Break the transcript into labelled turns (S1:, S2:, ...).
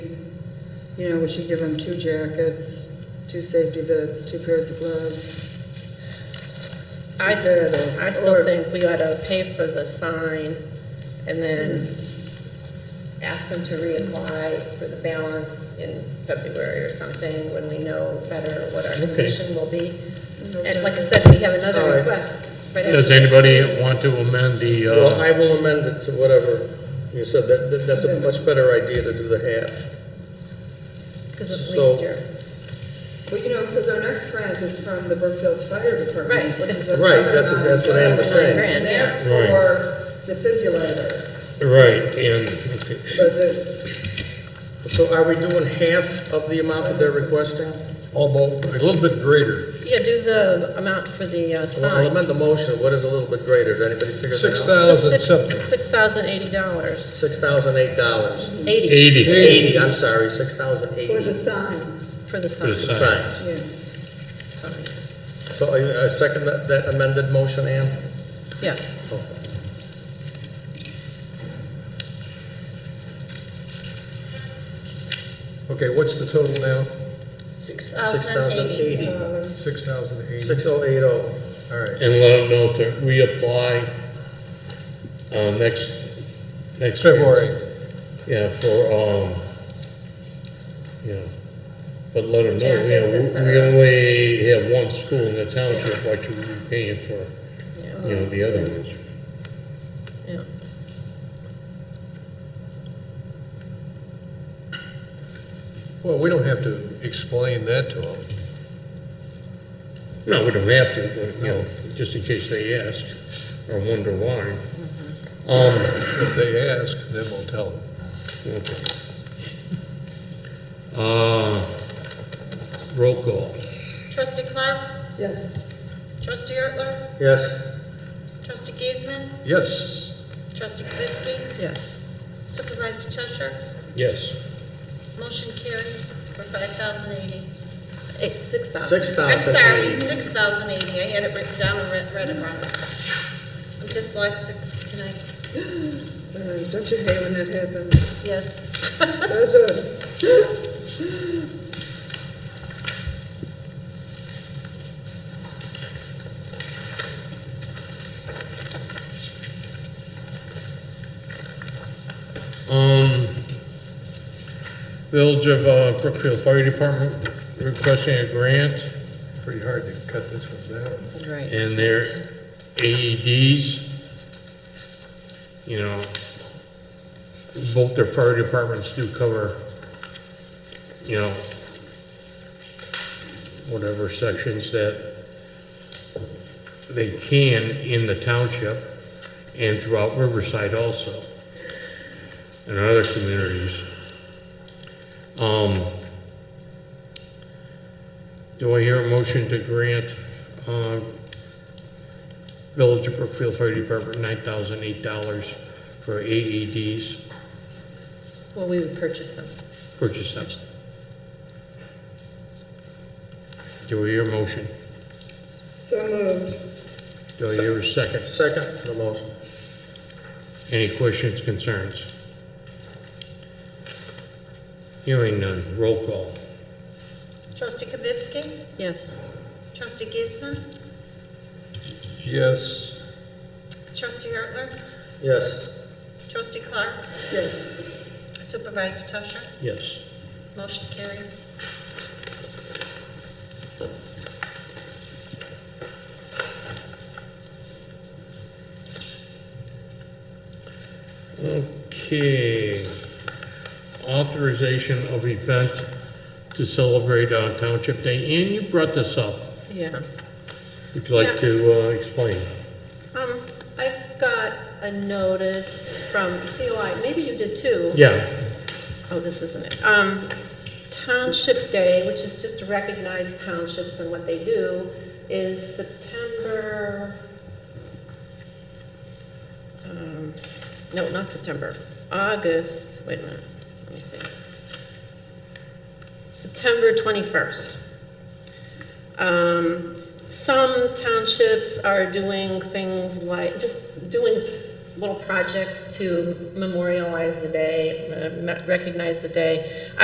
S1: you know, we should give them two jackets, two safety boots, two pairs of gloves.
S2: I, s-
S1: There it is.
S2: I still
S1: Or-
S2: think we ought to pay for the sign and then ask them to reapply for the balance in February or something when we know better what our condition will be. And like I said, we have
S3: All
S2: another
S3: right.
S2: request. right after
S4: Does
S2: this.
S4: anybody want to amend the,
S3: Well, I
S4: uh,
S3: will amend it to whatever you said, that, that- that's a much better idea to do the half.
S2: Because of
S3: so-
S2: police here.
S1: Well, you know, because our next grant is from the Brookfield Fire Department,
S2: Right.
S1: which is a.
S3: Right, that's what- that's what Ann was saying.
S1: And that's
S4: Right.
S1: for defibrillators,
S4: right, and,
S1: but the,
S3: So are we doing half of the amount that they're requesting?
S5: Almost, a little bit greater,
S2: Yeah, do the amount for the uh,
S3: Well, I'll
S2: sign.
S3: amend the motion, what is a little bit greater, did anybody figure
S5: six
S3: that out?
S2: The
S5: thousand
S2: six,
S5: something.
S2: six thousand eighty dollars,
S3: Six thousand eight dollars,
S2: eighty
S4: eighty
S3: eighty, I'm sorry, six thousand
S1: for the
S3: eighty
S1: sign,
S2: for the
S4: for the
S2: sign.
S4: sign.
S3: signs.
S1: yeah.
S2: signs.
S3: So are you, uh, second that that amended motion, Ann?
S2: Yes,
S3: Okay.
S5: Okay, what's the total now?
S2: six
S3: Six
S2: thousand eighty.
S5: Six thousand eighty,
S3: Six oh eight oh.
S5: all right.
S4: And let them know to reapply, uh, next, next.
S5: February.
S4: Yeah, for, um, you know, but let them know, you
S2: Jackets, et
S4: know, we- we
S2: cetera.
S4: only have one school in the township, why should we be paying for,
S2: Yeah,
S4: you know, the other
S2: Oh.
S4: ones?
S2: yeah.
S5: Well, we don't have to explain that to them.
S4: No, we don't have to, but, you know, just in case they ask or wonder why. Um,
S5: If they ask, then we'll tell them.
S4: Okay. Uh, roll call.
S6: Trustee Clark,
S1: Yes,
S6: trustee Ertler,
S3: Yes,
S6: trustee Giesman,
S5: Yes,
S6: trustee Kavitsky,
S2: Yes.
S6: supervisor Tusher,
S4: Yes.
S6: motion carried for five thousand eighty.
S2: Eight, six thousand.
S3: six
S6: I'm
S3: thousand
S6: sorry,
S3: eighty.
S6: six thousand eighty, I had it written down and read, read it wrong. I'm dyslexic tonight,
S1: Uh, don't you hate when that happens?
S6: yes.
S1: Those are,
S4: Um, Village of uh, Brookfield Fire Department requesting a grant
S5: pretty hard to cut this one down.
S2: Right.
S4: and their AEDs. You know, both their fire departments do cover, you know, whatever sections that they can in the township and throughout Riverside also and other communities. Um, do I hear a motion to grant, uh, Village of Brookfield Fire Department nine thousand eight dollars for E AEDs
S2: Well, we would purchase them.
S4: purchase them? Do I hear a motion?
S1: so moved.
S4: Do I hear a second?
S3: Second, the motion.
S4: Any questions, concerns? Hearing none, roll call.
S6: Trustee Kavitsky,
S2: Yes.
S6: trustee Giesman,
S5: Yes.
S6: trustee Ertler,
S3: Yes,
S6: trustee Clark,
S1: Yes,
S6: supervisor Tusher,
S4: Yes.
S6: motion carried.
S4: Okay. Authorization of event to celebrate uh, Township Day. Ann, you brought this up.
S2: Yeah.
S4: Would you like to uh, explain?
S2: Um, I got a notice from TOI, maybe you did too.
S4: Yeah,
S2: Oh, this isn't it. Um, Township Day, which is just to recognize townships and what they do, is September, um, no, not September, August, wait a minute, let me see. September 21st. Um, some townships are doing things like, just doing little projects to memorialize the day, uh, recognize the day.